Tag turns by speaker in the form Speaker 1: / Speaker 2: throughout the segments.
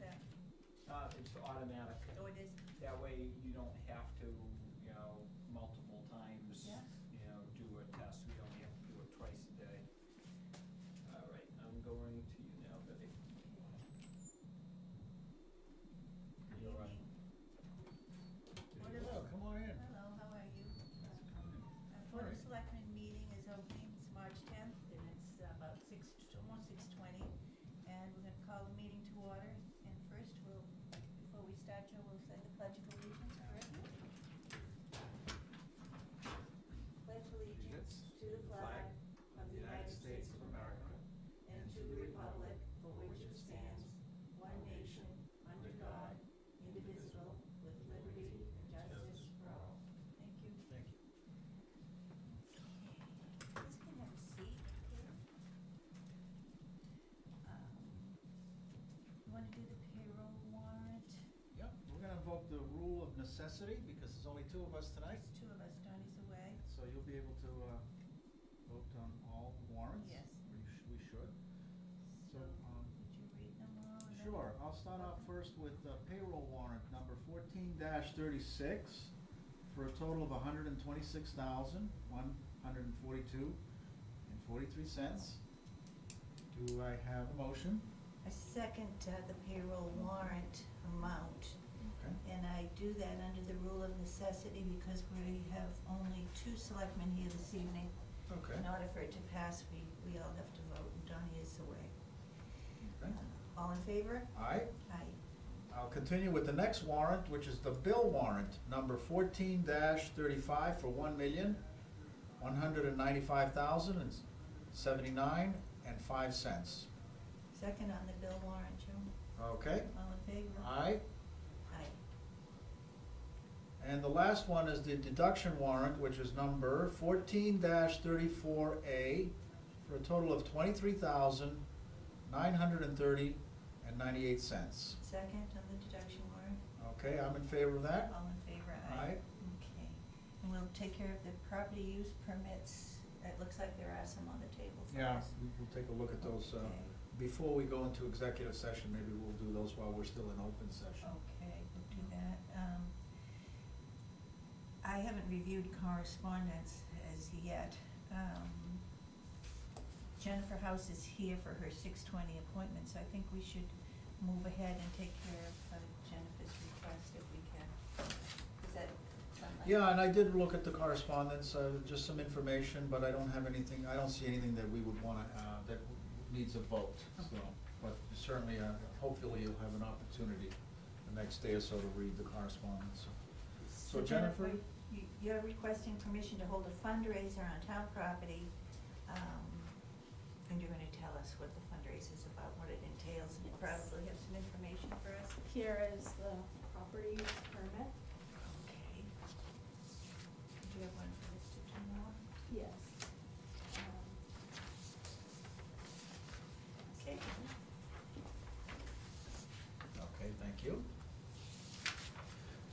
Speaker 1: that?
Speaker 2: Uh, it's automatic.
Speaker 1: Oh, it is?
Speaker 2: That way you don't have to, you know, multiple times,
Speaker 1: Yeah.
Speaker 2: you know, do a test. We only have to do it twice a day. All right, I'm going to you now, Betty. You're right.
Speaker 1: What is-
Speaker 3: Well, come on in.
Speaker 1: Hello, how are you? Our Board of Selectmen meeting is opening, it's March tenth, and it's about six, almost six twenty. And we're gonna call the meeting to order, and first we'll, before we start, Joe, we'll say the pledge of allegiance, correct? Pledge allegiance to the flag of the United States of America and to the republic for which it stands, one nation, under God, indivisible, with liberty and justice for all. Thank you.
Speaker 3: Thank you.
Speaker 1: Please can have a seat. Um, You wanna do the payroll warrant?
Speaker 3: Yep, we're gonna invoke the rule of necessity because there's only two of us tonight,
Speaker 1: There's two of us, Donnie's away.
Speaker 3: so you'll be able to, uh, vote on all warrants.
Speaker 1: Yes.
Speaker 3: Or you should, we should.
Speaker 1: So,
Speaker 3: So, um,
Speaker 1: would you read them all? and then-
Speaker 3: Sure, I'll start off first with uh, payroll warrant number fourteen thirty-six for a total of hundred and twenty-six thousand, one hundred and forty-two and forty-three cents. Do I have a motion?
Speaker 1: I second uh, the payroll warrant amount,
Speaker 3: Okay.
Speaker 1: and I do that under the rule of necessity because we have only two selectmen here this evening.
Speaker 3: Okay.
Speaker 1: In order for it to pass, we, we all have to vote, and Donnie is away. Uh,
Speaker 3: Okay.
Speaker 1: All in favor?
Speaker 3: All right,
Speaker 1: Aye.
Speaker 3: I'll continue with the next warrant, which is the bill warrant, number fourteen thirty-five for one million, one hundred and ninety-five thousand and seventy-nine and five cents.
Speaker 1: Second on the bill warrant, Joe.
Speaker 3: Okay,
Speaker 1: All in favor?
Speaker 3: aye.
Speaker 1: Aye.
Speaker 3: And the last one is the deduction warrant, which is number fourteen thirty-four A, for a total of twenty-three thousand, nine hundred and thirty and ninety-eight cents.
Speaker 1: Second on the deduction warrant?
Speaker 3: Okay, I'm in favor of that.
Speaker 1: All in favor? Aye.
Speaker 3: Aye.
Speaker 1: Okay. And we'll take care of the property use permits. It looks like there are some on the table for
Speaker 3: Yeah,
Speaker 1: us.
Speaker 3: we- we'll take a look at those, uh,
Speaker 1: Okay.
Speaker 3: before we go into executive session, maybe we'll do those while we're still in open session.
Speaker 1: Okay, we'll do that. Um, I haven't reviewed correspondence as yet. Um, Jennifer House is here for her six twenty appointment, so I think we should move ahead and take care of uh, Jennifer's request if we can. Is that something?
Speaker 3: Yeah, and I did look at the correspondence, uh, just some information, but I don't have anything, I don't see anything that we would wanna, uh, that needs a vote, so. But certainly, uh, hopefully you'll have an opportunity the next day or so to read the correspondence. So Jennifer?
Speaker 1: you- You're requesting permission to hold a fundraiser on town property, um, and you're gonna tell us what the fundraiser's about, what it entails, and you
Speaker 4: Yes.
Speaker 1: probably have some information for us.
Speaker 4: Here is the property use permit.
Speaker 1: Okay. Do you have one for Mr. Demore?
Speaker 4: Yes. Um,
Speaker 1: Okay.
Speaker 3: Okay, thank you.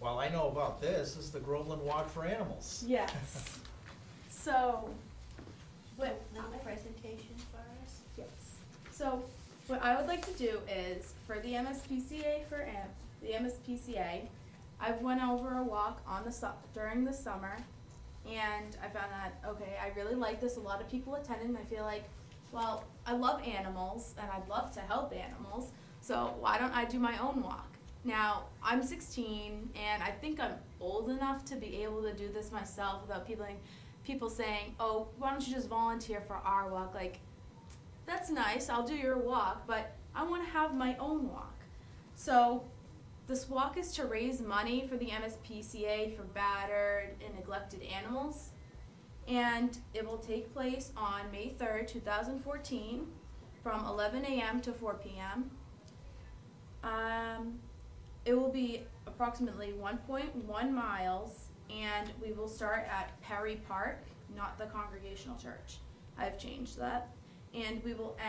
Speaker 3: Well, I know about this, this is the Groveland Walk for Animals.
Speaker 4: Yes. So, what,
Speaker 1: Little presentation for us?
Speaker 4: yes. So, what I would like to do is, for the MSPCA for am, the MSPCA, I went over a walk on the su- during the summer, and I found that, okay, I really like this, a lot of people attended, and I feel like, well, I love animals, and I'd love to help animals, so why don't I do my own walk? Now, I'm 16 and I think I'm old enough to be able to do this myself without people people saying, "Oh, why don't you just volunteer for our walk?" Like that's nice. I'll do your walk, but I want to have my own walk. So, this walk is to raise money for the MSPCA for battered and neglected animals. And it will take place on May 3rd, 2014, from 11 a.m. to 4 p.m. Um, it will be approximately 1.1 miles, and we will start at Perry Park, not the Congregational Church. I've changed that. And we will end.